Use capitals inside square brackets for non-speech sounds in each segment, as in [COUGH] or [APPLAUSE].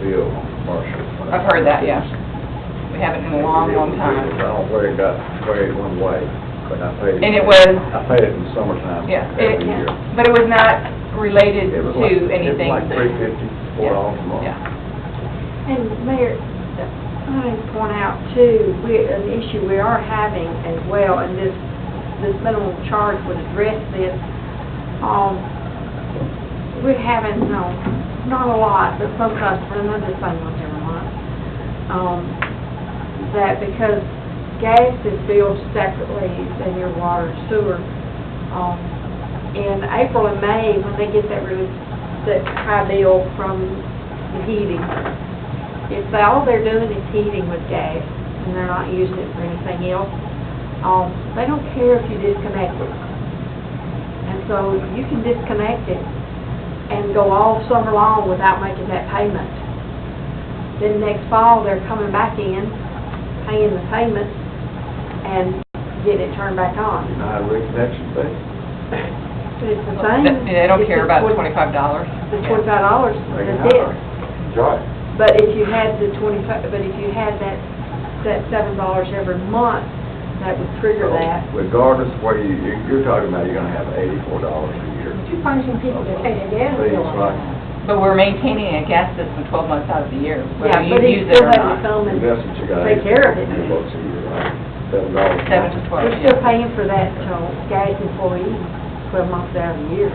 bill on commercial. I've heard that, yeah. We haven't in a long, long I time. don't know where it got weighed one way, but I paid. And it was, I paid it in the summertime yeah, every it, year. but it was not related It was to like- anything. It was like three fifty, four dollars a month. Yeah. And Mayor, I need to point out too, we, an issue we are having as well, and this, this minimum charge would address this. Um, we're having, no, not a lot, but some customers, not just saying once every month, um, that because gas is billed separately than your water and sewer, um, in April and May, when they get that really, that high bill from the heating, if they- all they're doing is heating with gas, and they're not using it for anything else, um, they don't care if you disconnect it. And so you can disconnect it and go all summer long without making that payment. Then next fall, they're coming back in, paying the payment, and getting it turned back on. And I had reconnection fee. But it's the same. They don't It's care the about the twen- twenty-five dollars. The twenty-five dollars, that's it. Right. But if you had the twenty-five, but if you had that, that seven dollars every month, that would So trigger that. Regardless of where you, you- you're talking about, you're gonna have eighty-four dollars a year. But you find some people that pay their gas Please, bill. right. But we're maintaining a gas system twelve months out of the year, whether Yeah, you but use it it's still or having not. some, and Investment you got. Take care of it. Eighty-four bucks a year, right? Seven dollars. a Seven to month. twelve, they're yeah. still paying for that, so gas employees, twelve months out of the year.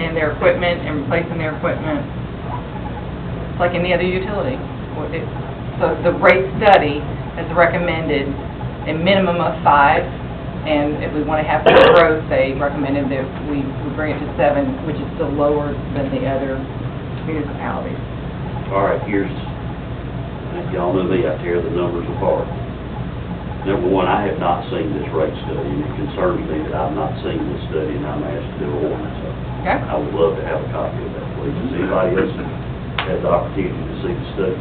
And their equipment and replacing their equipment. It's like any other utility. What it- So the rate study has recommended a minimum of five, and if we want to have some growth, they recommended that we we bring it to seven, which is still lower than the other municipalities. All right, here's, y'all know me, I tear the numbers apart. Number one, I have not seen this rate study, and it concerns me that I've not seen this study, and I'm asked to do an ordinance. of it. Okay? I would love to have a copy of that, please. Does anybody else have the opportunity to see the study?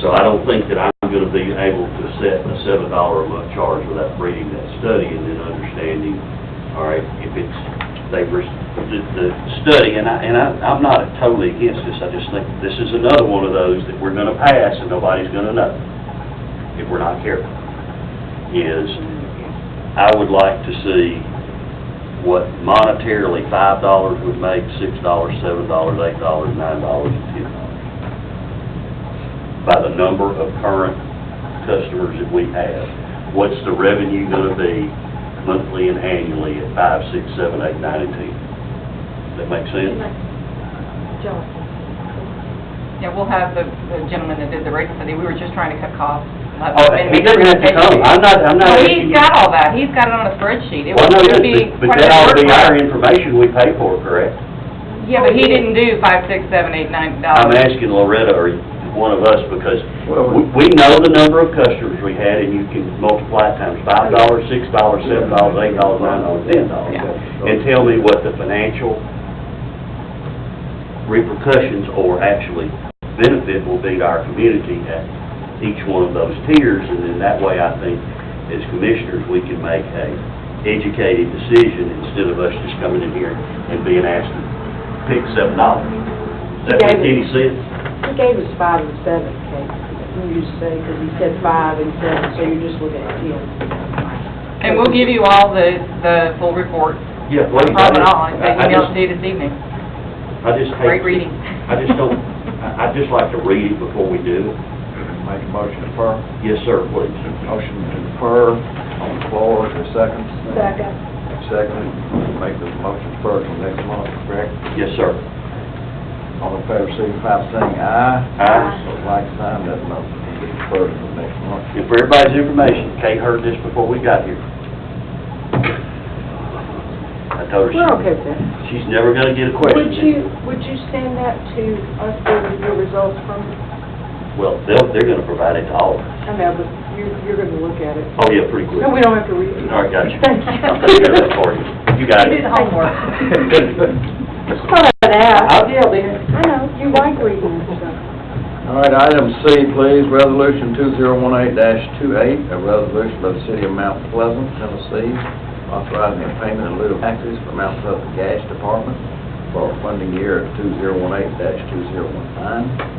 So I don't think that I'm gonna be able to set a seven dollar a month charge without reading that study and then understanding, all right, if it's, they were, the, the study, and I, and I, I'm not totally against this, I just think this is another one of those that we're gonna pass and nobody's gonna know, if we're not careful, is I would like to see what monetarily five dollars would make, six dollars, seven dollars, eight dollars, nine dollars, and ten dollars by the number of current customers that we have. What's the revenue gonna be monthly and annually at five, six, seven, eight, nine, and ten? Does that make sense? Johnson. Yeah, we'll have the the gentleman that did the rate study, we were just trying to cut costs. Let Oh, them- he doesn't have to come, I'm not, I'm not. Well, he's got all that, he's got it on a spreadsheet. It Well, no, would yes, be part but but of that the ought to be our workflow. information we pay for, correct? Yeah, but he didn't do five, six, seven, eight, nine I'm dollars. asking Loretta or one of us, because Well, we, we know the number of customers we had, and you can multiply it times five dollars, six dollars, seven dollars, eight dollars, nine dollars, ten dollars. Yeah. and tell me what the financial repercussions or actually benefit will be to our community at each one of those tiers, and then that way, I think, as commissioners, we can make a educated decision instead of us just coming in here and being asked to pick seven dollars. Does that make any sense? He gave us five and seven, Kate, when you say, because he said five and seven, so you're just looking at ten. And we'll give you all the, the full report, Yeah, no please. problem at all, and I- I they emailed just- it to you this evening. I just Great hate. reading. I just don't, I, I'd just like to read it before we do it. Make a motion to defer. Yes, sir, please. Motion to defer on the floor, is there a second? Second. Second, make the motion to defer till next month, correct? Yes, sir. All in favor, signify by saying aye. Aye. So like sign, that motion will be deferred till next month. And for everybody's information, Kate heard this before we got here. I told her We're okay she- with that. she's never gonna get a Would question. you, would you stand up to us getting your results from, Well, they'll, they're gonna provide it to all of us. I know, but you're, you're going to look at it. Oh, yeah, pretty quick. No, we don't have to read it. All right, got you. Thank [LAUGHS] I'll take care of that you. for you. You got it. [LAUGHS] Thought I'd ask. I'll- Yeah, dear. I know, you like reading and stuff. All right, item C, please, resolution two zero one eight 28 a resolution by the city of Mount Pleasant, Tennessee, authorizing the payment in lieu of taxes for Mount Pleasant Gas Department for funding year two zero one eight two zero one nine.